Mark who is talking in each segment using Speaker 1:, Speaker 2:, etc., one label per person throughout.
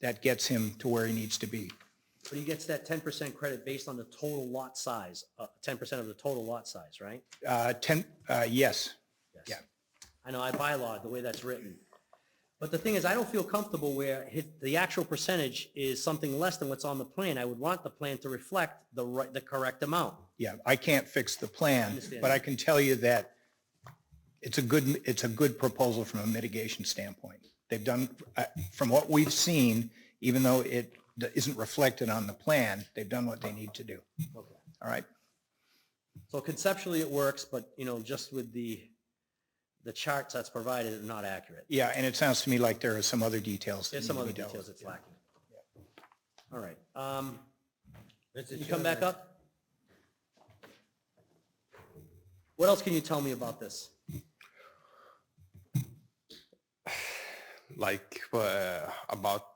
Speaker 1: that gets him to where he needs to be.
Speaker 2: But he gets that ten percent credit based on the total lot size, uh, ten percent of the total lot size, right?
Speaker 1: Uh, 10, uh, yes,
Speaker 2: Yes.
Speaker 1: Yeah.
Speaker 2: I know, I bylaw, the way that's written. But the thing is, I don't feel comfortable where hit- the actual percentage is something less than what's on the plan. I would want the plan to reflect the right, the correct amount.
Speaker 1: yeah, I can't fix the plan,
Speaker 2: Understand.
Speaker 1: but I can tell you that it's a good, it's a good proposal from a mitigation standpoint. They've done, uh, from what we've seen, even though it isn't reflected on the plan, they've done what they need to do.
Speaker 2: Okay.
Speaker 1: All right?
Speaker 2: So conceptually, it works, but, you know, just with the, the charts that's provided are not accurate.
Speaker 1: Yeah, and it sounds to me like there are some other details. that
Speaker 2: There's some
Speaker 1: need to
Speaker 2: other
Speaker 1: be dealt
Speaker 2: details
Speaker 1: with.
Speaker 2: that's lacking. All right. um, You come back up? What else can you tell me about this?
Speaker 3: Like uh, about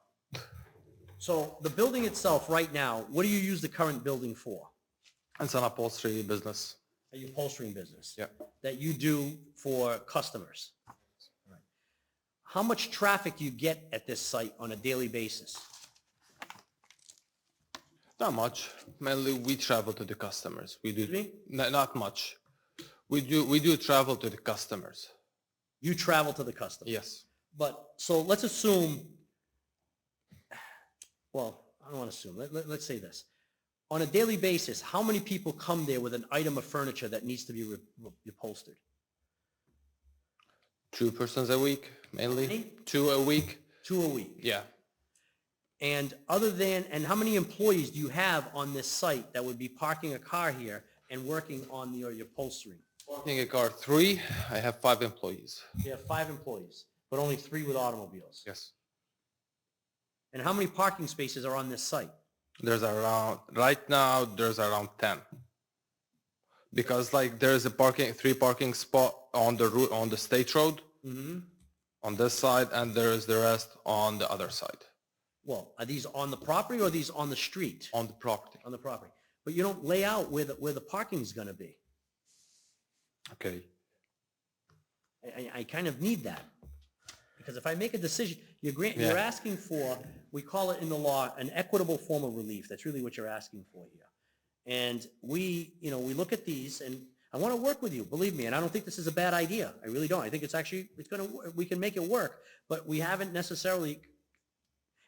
Speaker 2: So the building itself, right now, what do you use the current building for?
Speaker 3: it's an upholstery business.
Speaker 2: Are you upholstering business?
Speaker 3: Yeah.
Speaker 2: That you do for customers? All right. How much traffic do you get at this site on a daily basis?
Speaker 3: Not much. Mainly we travel to the customers. We do
Speaker 2: Excuse
Speaker 3: No, not much. We do we do travel to the customers.
Speaker 2: You travel to the customer?
Speaker 3: Yes.
Speaker 2: But, so let's assume, well, I don't want to assume, let, let, let's say this. On a daily basis, how many people come there with an item of furniture that needs to be re- re- upholstered?
Speaker 3: Two persons a week mainly.
Speaker 2: Many?
Speaker 3: Two a week.
Speaker 2: Two a week?
Speaker 3: Yeah.
Speaker 2: And other than, and how many employees do you have on this site that would be parking a car here and working on the upholstery?
Speaker 3: Parking a car three. I have five employees.
Speaker 2: You have five employees, but only three with automobiles.
Speaker 3: Yes.
Speaker 2: And how many parking spaces are on this site?
Speaker 3: There's around right now there's around ten. Because like there's a parking three parking spot on the route on the state road
Speaker 2: Mm-hmm.
Speaker 3: on this side and there is the rest on the other side
Speaker 2: Well, are these on the property or are these on the street?
Speaker 3: on the property.
Speaker 2: On the property. But you don't lay out where the, where the parking's gonna be.
Speaker 3: Okay.
Speaker 2: I, I, I kind of need that. Because if I make a decision, you're grant, you're
Speaker 3: Yeah.
Speaker 2: asking for, we call it in the law, an equitable form of relief. That's really what you're asking for here. And we, you know, we look at these and I want to work with you, believe me, and I don't think this is a bad idea. I really don't. I think it's actually, it's gonna, wo- we can make it work, but we haven't necessarily,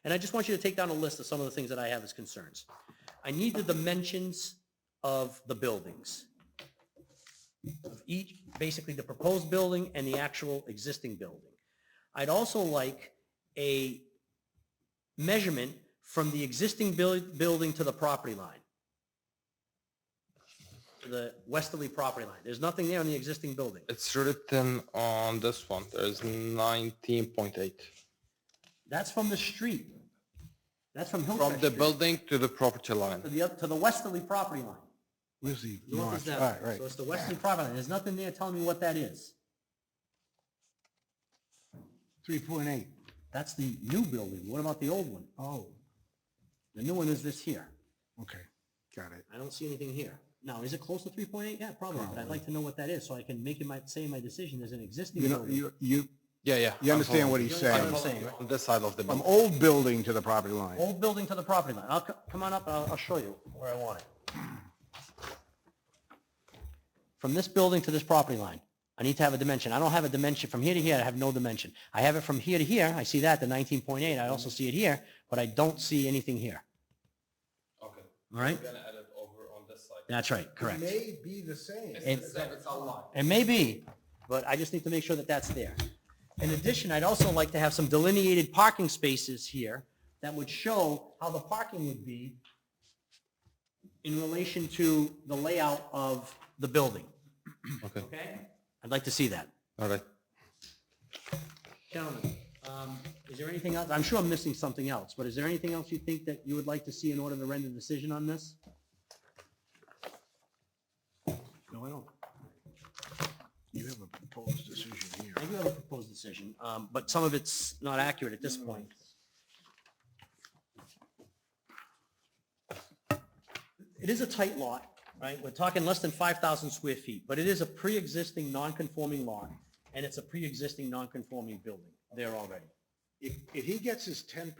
Speaker 2: and I just want you to take down a list of some of the things that I have as concerns. I need the dimensions of the buildings of each, basically the proposed building and the actual existing building. I'd also like a measurement from the existing buil- building to the property line. To the westerly property line. There's nothing there on the existing building.
Speaker 3: It's written on this one. There's 19.8.
Speaker 2: That's from the street. That's from
Speaker 3: From
Speaker 2: Hillcrest
Speaker 3: the
Speaker 2: Street
Speaker 3: building to the property line.
Speaker 2: to the, oth- to the westerly property line.
Speaker 1: Where's the
Speaker 2: North is
Speaker 1: All
Speaker 2: that
Speaker 1: right,
Speaker 2: way.
Speaker 1: right.
Speaker 2: So it's the westerly property line. There's nothing there telling me what that is.
Speaker 1: Three point eight.
Speaker 2: That's the new building. What about the old one?
Speaker 1: Oh,
Speaker 2: The new one is this here.
Speaker 1: okay, got it.
Speaker 2: I don't see anything here. Now, is it close to three point eight? Yeah, probably, but I'd like to know what that is, so I can make it my, say my decision as an existing
Speaker 4: You know,
Speaker 2: building.
Speaker 4: you, you,
Speaker 3: Yeah, yeah.
Speaker 4: you understand what he's
Speaker 2: You understand
Speaker 4: saying?
Speaker 2: what I'm saying, right?
Speaker 3: On this side of the
Speaker 4: From
Speaker 3: building.
Speaker 4: old building to the property line.
Speaker 2: Old building to the property line. I'll, co- come on up, and I'll, I'll show you where I want it. From this building to this property line, I need to have a dimension. I don't have a dimension from here to here, I have no dimension. I have it from here to here, I see that, the nineteen point eight, I also see it here, but I don't see anything here.
Speaker 3: Okay.
Speaker 2: All right?
Speaker 3: gonna add it over on this side.
Speaker 2: That's right, correct.
Speaker 4: May be the same.
Speaker 2: It's- It may be, but I just need to make sure that that's there. In addition, I'd also like to have some delineated parking spaces here that would show how the parking would be in relation to the layout of the building,
Speaker 3: Okay.
Speaker 2: okay? I'd like to see that.
Speaker 3: All right.
Speaker 2: Gentlemen, um, is there anything else? I'm sure I'm missing something else, but is there anything else you think that you would like to see in order to render a decision on this?
Speaker 4: No, I don't. You have a proposed decision here.
Speaker 2: I do have a proposed decision, um, but some of it's not accurate at this point. It is a tight lot, right? We're talking less than 5,000 square feet, but it is a pre-existing non-conforming lot, and it's a pre-existing non-conforming building there already.
Speaker 4: If, if he gets his ten